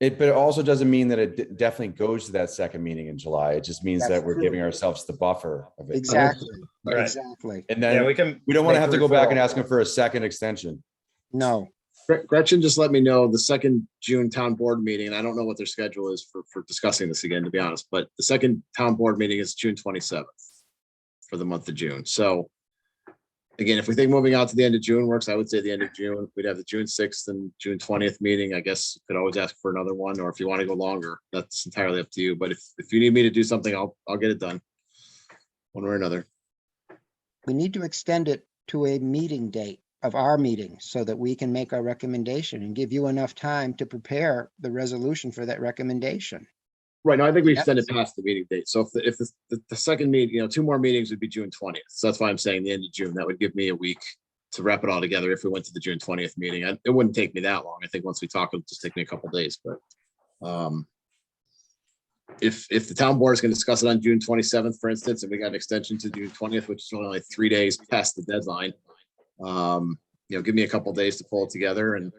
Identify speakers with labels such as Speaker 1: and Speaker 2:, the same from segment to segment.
Speaker 1: It, but it also doesn't mean that it de- definitely goes to that second meeting in July. It just means
Speaker 2: That's
Speaker 1: that we're
Speaker 2: true.
Speaker 1: giving ourselves the buffer of it.
Speaker 2: Exactly,
Speaker 3: Right.
Speaker 2: exactly.
Speaker 1: And
Speaker 3: Yeah,
Speaker 1: then
Speaker 3: we can.
Speaker 1: we don't want to
Speaker 3: make
Speaker 1: have
Speaker 3: the
Speaker 1: to go back and
Speaker 3: referral.
Speaker 1: ask them for a second extension.
Speaker 2: No,
Speaker 4: Gre- Gretchen just let me know the second June town board meeting, and I don't know what their schedule is for, for discussing this again, to be honest, but the second town board meeting is June twenty-seventh for the month of June. So again, if we think moving out to the end of June works, I would say the end of June, we'd have the June sixth and June twentieth meeting. I guess you could always ask for another one, or if you want to go longer, that's entirely up to you. But if, if you need me to do something, I'll, I'll get it done. One way or another.
Speaker 2: we need to extend it to a meeting date of our meeting so that we can make our recommendation and give you enough time to prepare the resolution for that recommendation.
Speaker 4: Right, no, I think we
Speaker 2: Yep.
Speaker 4: extended past the meeting date, so if, the- if the, the- the second meeting, you know, two more meetings would be June twentieth, so that's why I'm saying the end of June, that would give me a week to wrap it all together if we went to the June twentieth meeting, I- it wouldn't take me that long, I think once we talk, it'll just take me a couple days, but um if, if the town board is gonna discuss it on June twenty-seventh, for instance, and we got an extension to June twentieth, which is only like three days past the deadline, um, you know, give me a couple days to pull it together and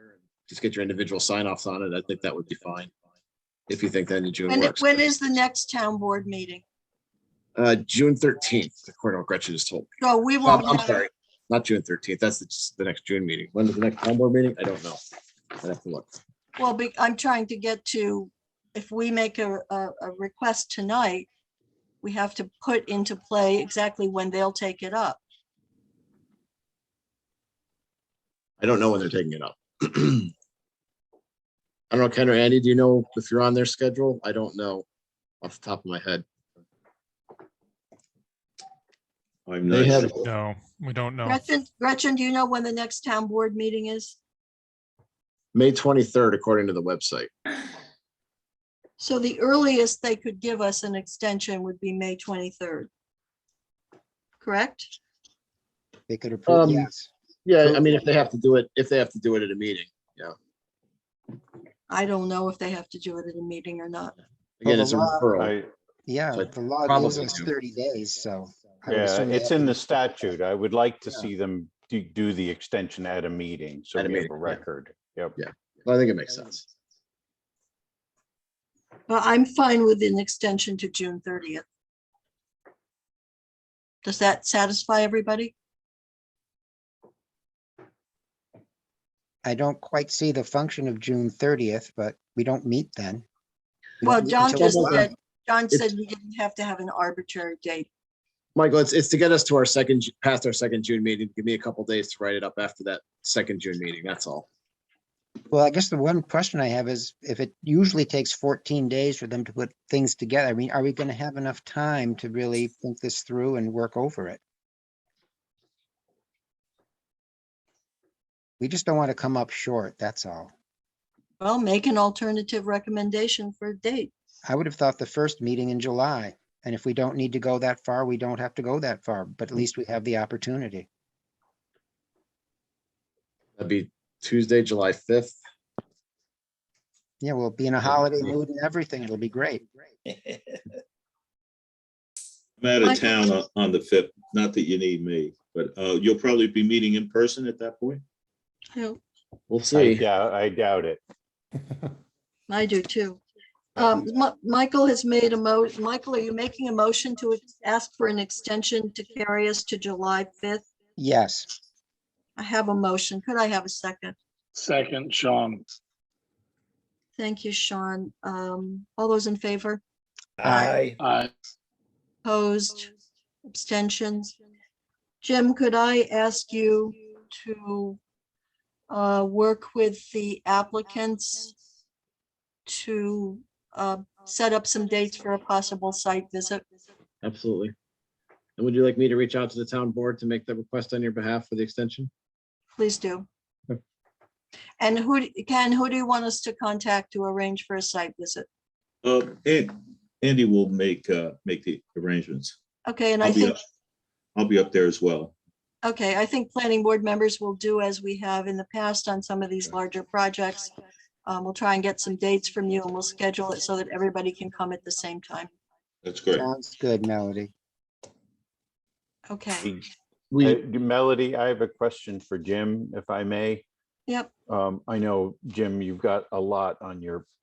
Speaker 4: just get your individual sign-offs on it, I think that would be fine if you think that in June
Speaker 5: When,
Speaker 4: works.
Speaker 5: when is the next town board meeting?
Speaker 4: Uh, June thirteenth, according to what Gretchen just told.
Speaker 5: So we
Speaker 4: me. Um,
Speaker 5: won't.
Speaker 4: I'm
Speaker 5: know.
Speaker 4: sorry, not June thirteenth. That's the, just the next June meeting. When is the next town board meeting? I don't know. I would have to look.
Speaker 5: Well, be- I'm trying to get to, if we make a, a, a request tonight, we have to put into play exactly when they'll take it up.
Speaker 4: I don't know when they're taking it up. I don't know, Ken or Andy, do you know if you're on their schedule? I don't know off the top of my head.
Speaker 6: I'm
Speaker 4: They
Speaker 6: not,
Speaker 4: have,
Speaker 6: sure.
Speaker 7: No, we don't know.
Speaker 5: Gretchen, Gretchen, do you know when the next town board meeting is?
Speaker 4: May twenty-third, according to the website.
Speaker 5: So the earliest they could give us an extension would be May 23rd. Correct?
Speaker 2: They could approve,
Speaker 4: Um,
Speaker 2: yes.
Speaker 4: Yeah, I mean, if they have to do it, if they have to do it at a meeting.
Speaker 5: I don't know if they have to do it at a meeting or not.
Speaker 4: Again, it's a
Speaker 2: Well,
Speaker 4: referral.
Speaker 6: I,
Speaker 2: Yeah,
Speaker 4: so
Speaker 2: the law
Speaker 4: probably
Speaker 2: gives us
Speaker 4: do.
Speaker 2: thirty days, so. I would
Speaker 6: yeah,
Speaker 2: assume they
Speaker 6: it's
Speaker 2: have
Speaker 6: in
Speaker 2: to-
Speaker 6: the statute. I would like to
Speaker 2: Yeah.
Speaker 6: see them do, do the extension at a meeting, so
Speaker 4: At a
Speaker 6: we have
Speaker 4: meeting,
Speaker 6: a
Speaker 4: yeah.
Speaker 6: record. Yep.
Speaker 4: I think it makes sense.
Speaker 5: But I'm fine with an extension to June 30th. Does that satisfy everybody?
Speaker 2: I don't quite see the function of June thirtieth, but we don't meet then. We don't
Speaker 5: Well,
Speaker 2: meet
Speaker 5: John
Speaker 2: until
Speaker 5: just
Speaker 2: July.
Speaker 5: said, John
Speaker 4: It's-
Speaker 5: said we didn't have to have an arbitrary date.
Speaker 4: Michael, it's, it's to get us to our second, Ju- past our second June meeting. Give me a couple days to write it up after that second June meeting. That's all.
Speaker 2: Well, I guess the one question I have is if it usually takes fourteen days for them to put things together, I mean, are we gonna have enough time to really think this through and work over it? We just don't want to come up short, that's all.
Speaker 5: Well, make an alternative recommendation for a date.
Speaker 2: I would have thought the first meeting in July, and if we don't need to go that far, we don't have to go that far, but at least we have the opportunity.
Speaker 4: That'd be Tuesday, July fifth.
Speaker 2: Yeah, we'll be in a holiday mood and everything, it'll be great.
Speaker 3: Right.
Speaker 6: I'm out
Speaker 5: Michael-
Speaker 6: of town on- on the fifth, not that you need me, but uh, you'll probably be meeting in person at that point.
Speaker 5: I don't-
Speaker 4: We'll
Speaker 3: I
Speaker 4: see.
Speaker 3: doubt, I doubt it.
Speaker 5: I do too. Um, Mi- Michael has made a mo, Michael, are you making a motion to ex- ask for an extension to carry us to July 5th?
Speaker 2: Yes,
Speaker 5: I have a motion. Could I have a second?
Speaker 8: Second, Sean.
Speaker 5: Thank you, Sean. Um, all those in favor?
Speaker 2: Aye.
Speaker 8: I,
Speaker 5: Opposed? Abstentions? Jim, could I ask you to uh, work with the applicants to uh, set up some dates for a possible site visit?
Speaker 4: Absolutely. And would you like me to reach out to the town board to make the request on your behalf for the extension?
Speaker 5: Please do.
Speaker 4: Yep.
Speaker 5: And who, d- Ken, who do you want us to contact to arrange for a site visit?
Speaker 9: Uh, and Andy will make, uh, make the arrangements.
Speaker 5: Okay, and I
Speaker 9: I'll be
Speaker 5: think,
Speaker 9: up. I'll be up there as well.
Speaker 5: okay, I think planning board members will do as we have in the past on some of these larger projects. Um, we'll try and get some dates from you and we'll schedule it so that everybody can come at the same time.
Speaker 9: That's great.
Speaker 2: sounds good, Melody.
Speaker 5: Okay,
Speaker 6: Uh, Melody, I have a question for Jim, if I may.
Speaker 10: Yep.
Speaker 1: Um, I know, Jim, you've got a lot on your